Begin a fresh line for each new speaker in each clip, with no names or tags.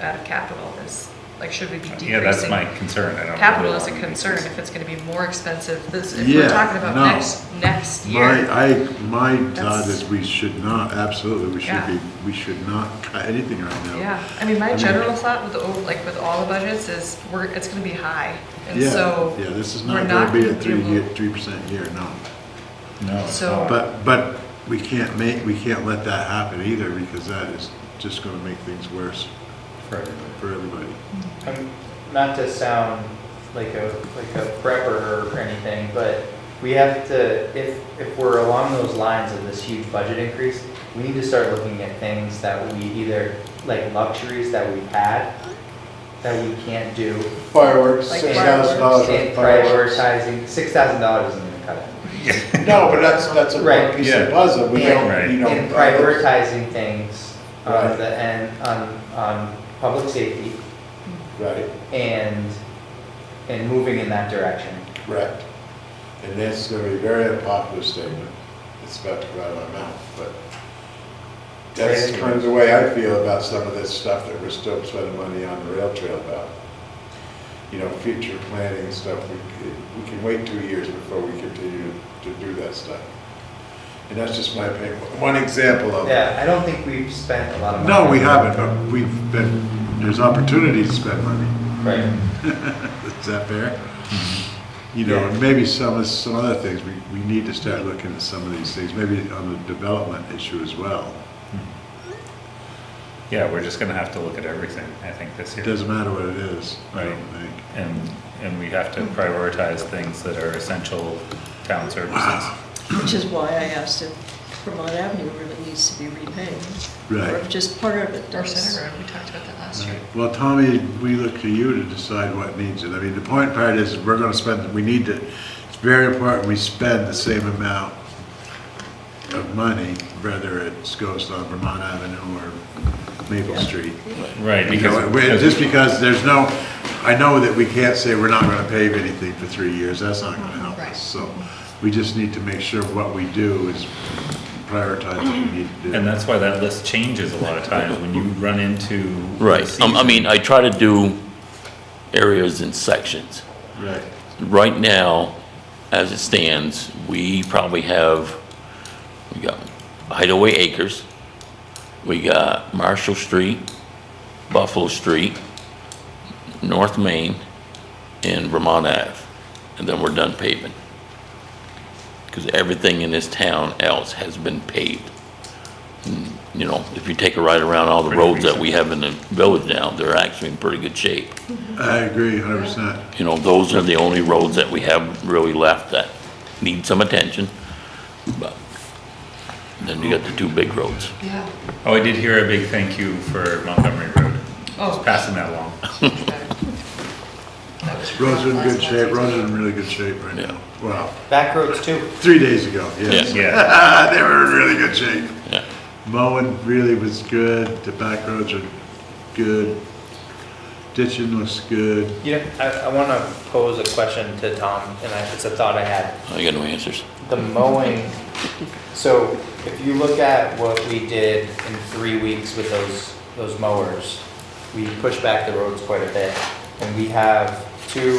out of uh, capital is, like, should we be decreasing?
Yeah, that's my concern, I don't.
Capital is a
really wanna
concern
increase
if it's gonna be more expensive, this, if
Yeah,
we're talking about
no.
next, next
My,
year.
I, my thought
That's-
is we should not, absolutely, we should
Yeah.
be, we should not try anything right now.
Yeah, I mean, my
mean-
general thought with the, ov- like, with all the budgets is, we're, it's gonna be high, and
Yeah,
so.
Yeah, this is
we're
not gonna be a
be
three
able-
year, three percent year, no.
it. No. it's
So-
not.
But, but we can't make, we can't let that happen either, because that is just gonna make things worse
For everybody.
for everybody.
Um, not to sound like a, like a prepper or anything, but we have to, if, if we're along those lines of this huge budget increase, we need to start looking at things that we either, like luxuries that we've had, that we can't do.
Fireworks,
Like
six thousand dollars
And
on fireworks.
prioritizing, six thousand dollars isn't gonna cut it.
No, but that's, that's a
Right.
one piece of
Yeah.
the puzzle, we
Right.
don't, you know.
And prioritizing things on
Right.
the, and on, on public safety
Right,
and, and moving in that direction.
correct. And that's gonna be a very unpopular statement, it's about to come out of my mouth, but that's
Right.
kind of the way I feel about some of this stuff that we're still spending money on the rail trail about. You know, future planning and stuff, we, c- we can wait two years before we continue to do that stuff. And that's just my opinion, one example of.
Yeah, I don't think we've spent a lot of money.
No, we haven't, but we've been, there's opportunities to spend money.
Right.
Is that fair? You know, and maybe some, of- some other things, we, we need to start looking at some of these things, maybe on the development issue as well.
Yeah, we're just gonna have to look at everything, I think, this
It
year.
doesn't matter what it is, I don't
Right.
think.
And, and we have to prioritize things that are essential town services.
Which is why I asked if Vermont Avenue really needs to be renamed. Or
Right.
if just part of it
Or
does.
Center Road, we talked about that last year.
Well, Tommy, we look to you to decide what needs it. I mean, the point part is, we're gonna spend, we need to, it's very important we spend the same amount of money, whether it goes on Vermont Avenue or Maple Street.
Right,
You know,
because.
we- Just because there's no, I know that we can't say we're not gonna pave anything for three years, that's not gonna help
Right.
us. So, we just need to make sure what we do is prioritize what we need to do.
And that's why that list changes a lot of times when you run into. the
Right, Um, I
season.
mean, I try to do areas in sections.
Right.
Right now, as it stands, we probably have, we got Hideaway Acres, we got Marshall Street, Buffalo Street, North Main, and Vermont Ave, and then we're done paving. Because everything in this town else has been paved. Mm, You know, if you take a ride around all the
Pretty
roads that
recent.
we have in the village now, they're actually in pretty good shape
I agree hundred percent.
you know, those are the only roads that we have really left that need some attention. But Then you got the two big roads.
Yeah.
Oh, I did hear a big thank you for Montgomery Road.
Oh.
Just passing that along.
That was
Roads are in
last-
good
last
shape,
year's
roads are
meeting.
in really good shape right now. Wow,
Back roads too.
three days ago, yes. Ah,
Yeah.
They were in really good shape.
Yeah.
Mowing really was good, the back roads are good, ditching looks good.
You know, I, I want to pose a question to Tom, and I, it's a thought I had.
I got no answers.
The mowing, so if you look at what we did in three weeks with those, those mowers, we pushed back the roads quite a bit. And we have two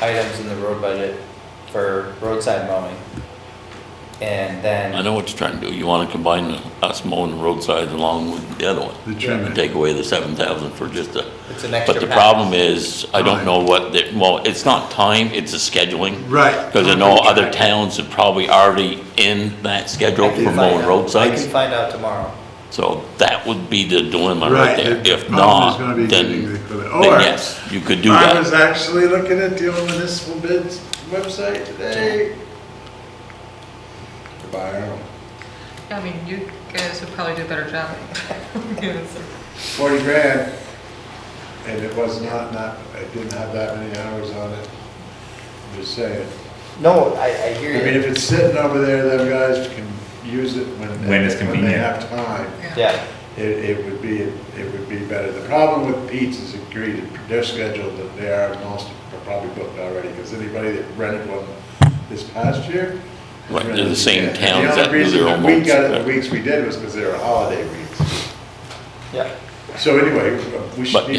items in the road budget for roadside mowing. And then.
I know what you're trying to do. You want to combine us mowing the roadside along with the other one.
The trimming.
And take away the seven thousand for just a,
It's an extra
but the
pass.
problem is, I don't know what, the- well, it's not time, it's the scheduling.
Right.
Because I know other towns are probably already in that schedule
I can
for
find
mowing
out. I
roadsides.
can find out tomorrow.
So that would be the dilemma right there.
the
If
problem is gonna
not,
be
then,
getting the
then
equipment. Or,
yes, you could do
I was
that.
actually looking at the old municipal bids website today.
Buy our own.
I mean, you guys would probably do a better job. Given some-
40 grand, and it was not, not, it didn't have that many hours on it. I'm just saying.
No, I, I
I
hear you.
mean, if it's sitting over there, them guys can use it when.
When it's
When they
convenient.
have time.
Yeah.
It, it would be, it would be better. The problem with Pete's is agreed, their schedule that they are most, are probably booked already, because anybody that rented one this past year. has
Right, they're the
rented
same
again.
towns that do
The
their
only
own
reason that we got it
boats.
the weeks we did was because they were holiday weeks.
Yeah.
So anyway, we should
But
need